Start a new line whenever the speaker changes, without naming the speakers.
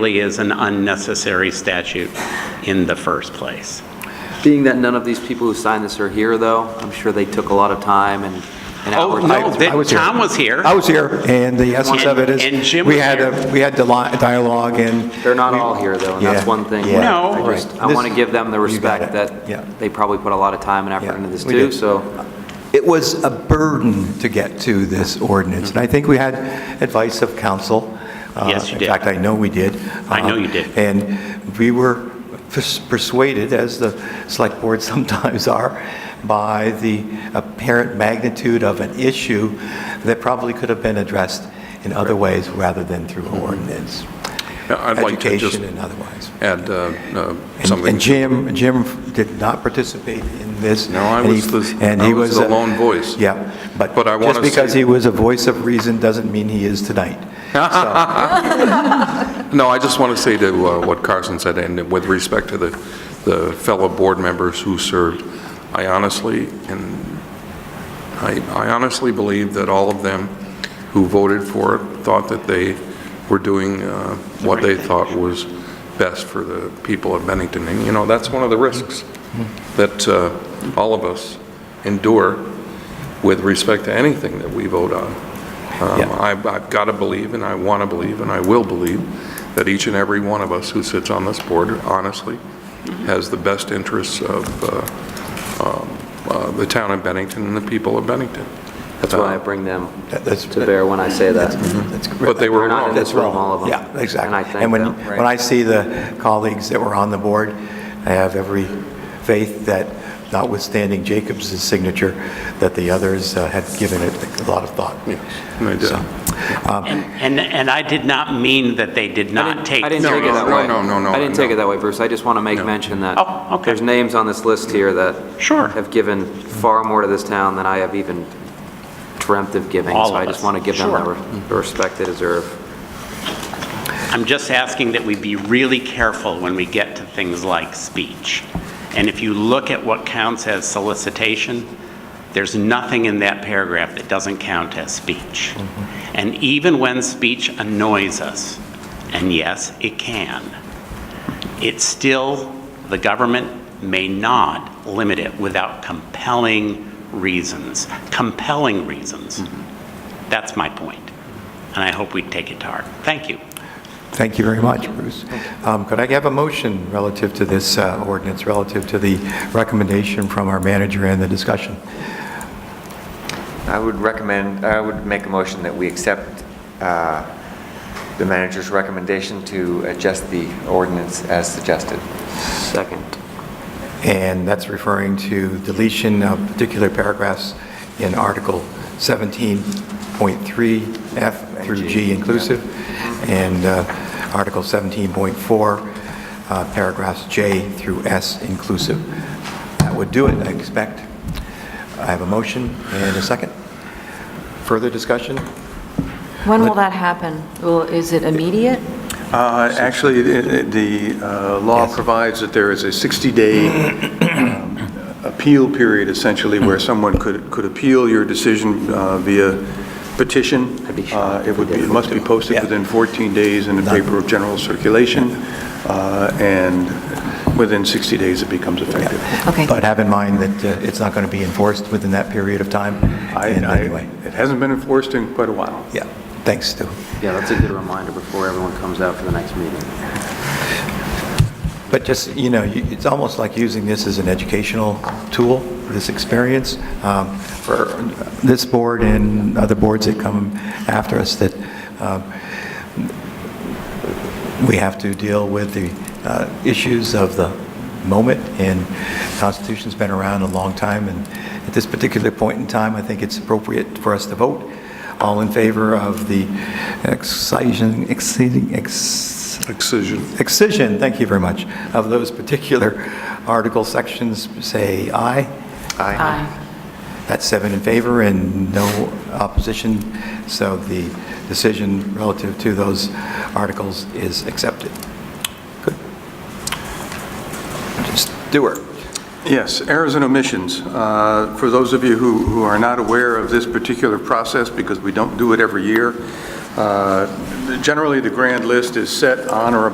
really is an unnecessary statute in the first place.
Being that none of these people who signed this are here, though, I'm sure they took a lot of time and and
Oh,
hours.
no,
to-
that-
I-
I was here.
Tom was here.
I was here, and the essence of it
And
is,
Jim
we
was
had,
here.
a we had the li- dialogue, and
They're not all here, though, and that's
Yeah,
one thing.
yeah.
No.
I just- I
This-
want to give them the
you got
respect
it. Yeah.
that they probably put a lot of time and effort
Yeah,
into this
we
too,
did.
so
it was a burden to get to this ordinance. And I think we had advice of counsel. Uh,
Yes, you did.
In fact, I know we did.
I know
Um,
you did.
And we were pers- persuaded, as the select board sometimes are, by the apparent magnitude of an issue that probably could have been addressed in other ways rather than through ordinance.
Yeah, I'd like to just
Education and otherwise.
add uh, uh,
And-
something.
And Jim, Jim did not participate in this.
No, I
and he-
was the-
and
I
he
was the
a-
lone voice.
Yeah, but
But I
just
wanna
because
say-
he was a voice of reason doesn't mean he is tonight. So,
No, I just want to say to uh, what Carson said, and with respect to the the fellow board members who served, I honestly, and I I honestly believe that all of them who voted for it thought that they were doing uh, what they thought was best for the people of Bennington. And, you know, that's one of the risks that uh, all of us endure with respect to anything that we vote on. Um,
Yeah.
I've, I've got to believe, and I want to believe, and I will believe, that each and every one of us who sits on this board, honestly, has the best interests of uh, um, uh, the town of Bennington and the people of Bennington. Uh,
that's why I bring them
that- that's-
to bear when I say that.
that's- mhm.
Mm-hmm. But they were
They're not in
wrong.
this room, all of them.
Yeah, exactly.
And I thank
when-
them.
when I see the colleagues that were on the board, I have every faith that notwithstanding Jacobs' signature, that the others uh, had given it a lot of thought.
And I did.
So, um,
And, and I did not mean that they did
I
not
didn't-
take.
I didn't
No,
take it
no,
that
no,
way.
no, no, no,
I didn't take
no.
it that way, Bruce. I just want to make mention that.
Oh, okay.
There's names on this list here that.
Sure.
Have given far more to this town than I have even dreamt of giving.
All
So I
of
just
us.
want to give them
Sure.
the the respect they deserve.
I'm just asking that we be really careful when we get to things like speech. And if you look at what counts as solicitation, there's nothing in that paragraph that doesn't count as speech. And even when speech annoys us, and yes, it can, it still, the government may not limit it without compelling reasons, compelling reasons. That's my point, and I hope we take it to heart. Thank you.
Thank you very much, Bruce. Um, Could I have a motion relative to this uh, ordinance, relative to the recommendation from our manager and the discussion?
I would recommend, I would make a motion that we accept uh, the manager's recommendation to adjust the ordinance as suggested.
Second.
And that's referring to deletion of particular paragraphs in Article 17.3 F through G inclusive, and uh, Article 17.4, uh, paragraphs J through S inclusive. That would do it, I expect. I have a motion and a second. Further discussion?
When will that happen? Will, is it immediate?
Uh, Actually, the- the uh, law provides that there is a 60-day appeal period essentially where someone could, could appeal your decision uh, via petition. Uh, It would be, it must be posted within 14 days in the paper of general circulation, uh, and within 60 days it becomes effective.
Okay.
But have in mind that uh, it's not going to be enforced within that period of time
I-
in
I-
any way.
It hasn't been enforced in quite a while.
Yeah, thanks, Stu.
Yeah, that's a good reminder before everyone comes out for the next meeting.
But just, you know, you- it's almost like using this as an educational tool, this experience, um, for this board and other boards that come after us, that um, we have to deal with the uh, issues of the moment, and Constitution's been around a long time, and at this particular point in time, I think it's appropriate for us to vote. All in favor of the excision, exceeding, ex
Excision.
excision, thank you very much, of those particular article sections, say aye.
Aye.
That's seven in favor and no opposition, so the decision relative to those articles is accepted. Good. Stewart?
Yes, errors and omissions. Uh, For those of you who who are not aware of this particular process, because we don't do it every year, uh, generally, the grand list is set on or